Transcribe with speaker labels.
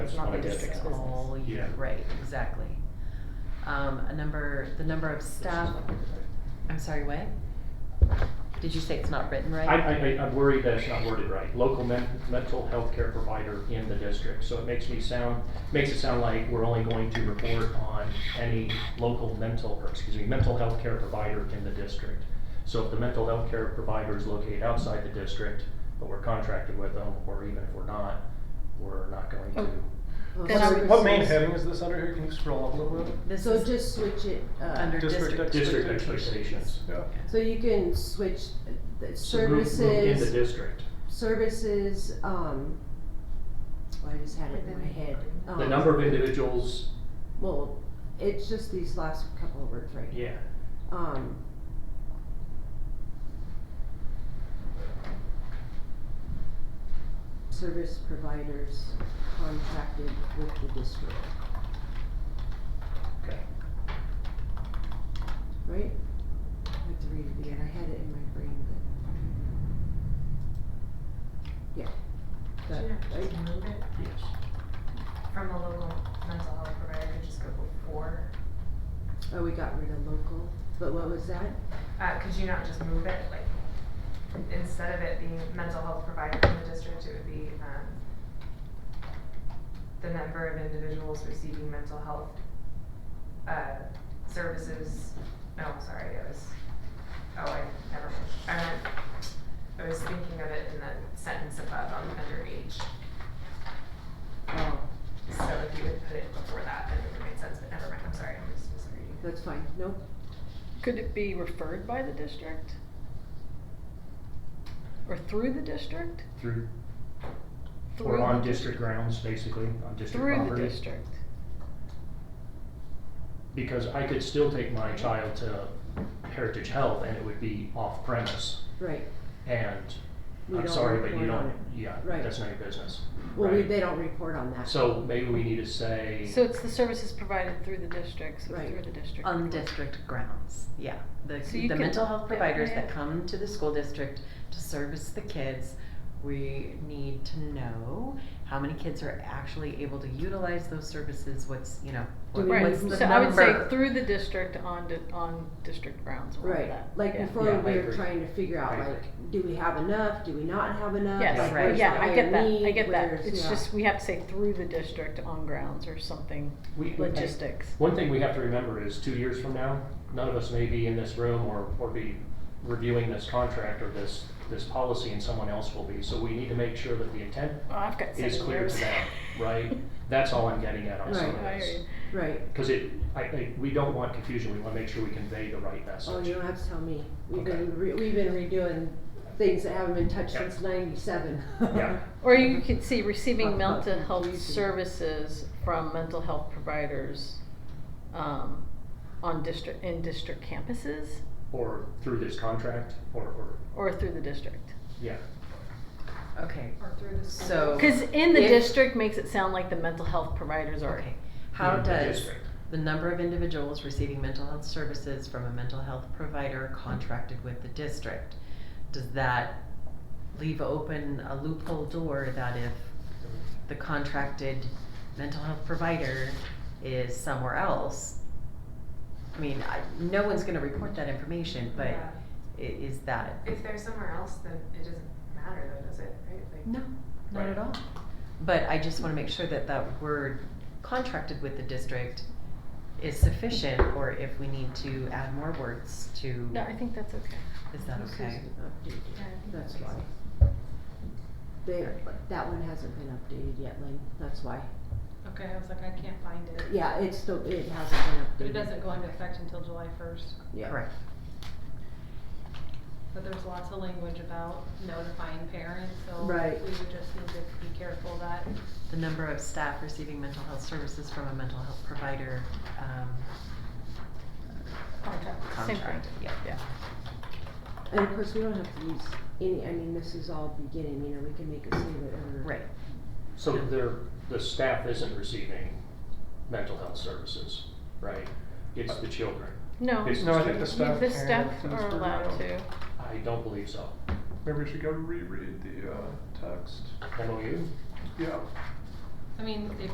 Speaker 1: that's
Speaker 2: not
Speaker 1: my
Speaker 2: the
Speaker 1: guess.
Speaker 2: district's
Speaker 3: all
Speaker 2: business.
Speaker 3: year,
Speaker 1: Yeah.
Speaker 3: right, exactly. Um, a number, the number of staff, I'm sorry, what? Did you say it's not written
Speaker 1: I,
Speaker 3: right?
Speaker 1: I, I- I'm worried that it's not worded right. Local men- mental health care provider in the district. So it makes me sound, makes it sound like we're only going to report on any local mental, or excuse me, mental health care provider in the district. So if the mental health care provider is located outside the district, but we're contracted with them, or even if we're not, we're not going
Speaker 4: Oh.
Speaker 1: to.
Speaker 4: Then I would-
Speaker 5: What main heading is this under here? Can you scroll up a little bit?
Speaker 3: This
Speaker 4: So
Speaker 3: is
Speaker 4: just switch it, uh,
Speaker 3: under
Speaker 5: District
Speaker 3: district.
Speaker 1: District
Speaker 3: expectations.
Speaker 1: expectations.
Speaker 5: Yeah.
Speaker 4: so you can switch the
Speaker 1: So move- move In the
Speaker 4: services,
Speaker 1: district.
Speaker 4: services, um, well, I just had it in my head.
Speaker 1: The
Speaker 4: um,
Speaker 1: number of individuals,
Speaker 4: Well, it's just these last couple of words right here.
Speaker 1: yeah.
Speaker 4: Um. Service providers contracted with the district,
Speaker 1: Okay.
Speaker 4: right? I have to read it again, I had it in my brain, but. Yeah. That,
Speaker 6: Shouldn't we
Speaker 4: right?
Speaker 6: just move it
Speaker 1: Yes.
Speaker 6: from a local mental health provider to just go before?
Speaker 4: Oh, we got rid of local, but what was that?
Speaker 6: Uh, could you not just move it, like, instead of it being mental health provider in the district, it would be, um, the number of individuals receiving mental health, uh, services, no, sorry, it was, oh, I, never mind. I meant, I was thinking of it in the sentence above on underage,
Speaker 4: Oh,
Speaker 6: so if you would put it before that, then it would make sense, but never mind, I'm sorry, I'm just misreading.
Speaker 4: that's fine, nope,
Speaker 2: Could it be referred by the district? Or through the district?
Speaker 1: Through,
Speaker 2: Through
Speaker 1: Or
Speaker 2: the
Speaker 1: on
Speaker 2: dis-
Speaker 1: district grounds, basically, on district
Speaker 2: Through the
Speaker 1: property.
Speaker 2: district.
Speaker 1: Because I could still take my child to Heritage Health and it would be off premise.
Speaker 4: right.
Speaker 1: And
Speaker 4: We
Speaker 1: I'm
Speaker 4: don't
Speaker 1: sorry, but you
Speaker 4: report on
Speaker 1: don't,
Speaker 4: it.
Speaker 1: yeah,
Speaker 4: Right.
Speaker 1: that's not your business.
Speaker 4: Well, we,
Speaker 1: Right.
Speaker 4: they don't report on that.
Speaker 1: So maybe we need to say,
Speaker 2: So it's the services provided through the district, so it's
Speaker 4: Right.
Speaker 2: through the district.
Speaker 3: On district grounds, yeah. The,
Speaker 2: So you
Speaker 3: the
Speaker 2: can-
Speaker 3: mental health providers that
Speaker 2: Yeah.
Speaker 3: come to the school district to service the kids, we need to know how many kids are actually able to utilize those services, what's, you know,
Speaker 4: Do
Speaker 3: what-
Speaker 4: we-
Speaker 3: what's the
Speaker 2: Right,
Speaker 3: number?
Speaker 2: so I would say through the district on, di- on district grounds, we'll have
Speaker 4: Right,
Speaker 2: that.
Speaker 4: like
Speaker 2: Yeah.
Speaker 4: before,
Speaker 1: Yeah, I
Speaker 4: we were
Speaker 1: agree.
Speaker 4: trying to figure out
Speaker 1: I agree.
Speaker 4: like, do we have enough, do we not have enough?
Speaker 2: Yes,
Speaker 4: Like,
Speaker 3: right.
Speaker 4: where's
Speaker 2: yeah,
Speaker 4: the
Speaker 2: I get that,
Speaker 4: higher
Speaker 2: I
Speaker 4: need?
Speaker 2: get that,
Speaker 4: Where's-
Speaker 2: it's
Speaker 4: yeah.
Speaker 2: just, we have to say through the district on grounds or something,
Speaker 1: we,
Speaker 2: logistics.
Speaker 1: one thing we have to remember is two years from now, none of us may be in this room or, or be reviewing this contract or this, this policy and someone else will be. So we need to make sure that the intent
Speaker 2: Well, Oh, I've got
Speaker 1: is
Speaker 2: seven
Speaker 1: clear to
Speaker 2: years.
Speaker 1: them, right? That's all I'm getting at on some of
Speaker 4: Right.
Speaker 2: I hear
Speaker 1: this.
Speaker 2: you.
Speaker 4: Right,
Speaker 1: Because it, I, I, we don't want confusion, we wanna make sure we convey the right message.
Speaker 4: oh, you don't have to tell me, we've
Speaker 1: Okay.
Speaker 4: been, re- we've been redoing things that haven't been touched
Speaker 1: Yeah.
Speaker 4: since ninety-seven.
Speaker 1: Yeah.
Speaker 2: Or you could see receiving
Speaker 4: Not
Speaker 2: mental
Speaker 4: that
Speaker 2: health
Speaker 4: easy.
Speaker 2: services from mental health providers, um, on district, in district campuses
Speaker 1: Or through this contract, or, or,
Speaker 2: or through the district.
Speaker 1: yeah,
Speaker 3: Okay,
Speaker 6: Or through the school.
Speaker 3: So-
Speaker 2: Cause in the
Speaker 3: If-
Speaker 2: district makes it sound like the mental health providers are.
Speaker 3: okay. How
Speaker 1: in the
Speaker 3: does
Speaker 1: district.
Speaker 3: the number of individuals receiving mental health services from a mental health provider contracted with the district, does that leave open a loophole door that if the contracted mental health provider is somewhere else. I mean, I, no one's gonna report that information, but
Speaker 6: Yeah.
Speaker 3: i- is that,
Speaker 6: If they're somewhere else, then it doesn't matter though, does it, right? Like,
Speaker 3: no, not at
Speaker 1: Right.
Speaker 3: all. But I just wanna make sure that that word contracted with the district is sufficient, or if we need to add more words to,
Speaker 2: No, I think that's okay.
Speaker 3: is that
Speaker 4: This
Speaker 3: okay?
Speaker 4: isn't updated.
Speaker 6: Yeah, I think
Speaker 4: That's
Speaker 6: that makes
Speaker 4: why. They, that one hasn't been updated yet, Lynn, that's why,
Speaker 7: Okay, I was like, I can't find it.
Speaker 4: yeah, it's still, it hasn't
Speaker 7: But
Speaker 4: been updated.
Speaker 7: it doesn't go into effect until July first,
Speaker 4: Yeah.
Speaker 3: Correct,
Speaker 7: but there's lots of language about notifying parents, so we
Speaker 4: Right.
Speaker 7: would just need to be careful that
Speaker 3: the number of staff receiving mental health services from a mental health provider, um,
Speaker 2: Contract, same thing.
Speaker 3: contracted, yeah.
Speaker 2: Yeah.
Speaker 4: And of course, we don't have to use any, I mean, this is all beginning, you know, we can make it say whatever.
Speaker 3: Right,
Speaker 1: So there, the staff isn't receiving mental health services, right? It's the children.
Speaker 2: No,
Speaker 1: It's-
Speaker 5: No, I think the staff
Speaker 2: the
Speaker 5: can.
Speaker 2: staff
Speaker 5: it's in this
Speaker 2: are
Speaker 5: program.
Speaker 2: allowed to.
Speaker 1: I don't believe so.
Speaker 5: Maybe we should go reread the, uh, text.
Speaker 1: MOU?
Speaker 5: Yeah.
Speaker 7: I mean, if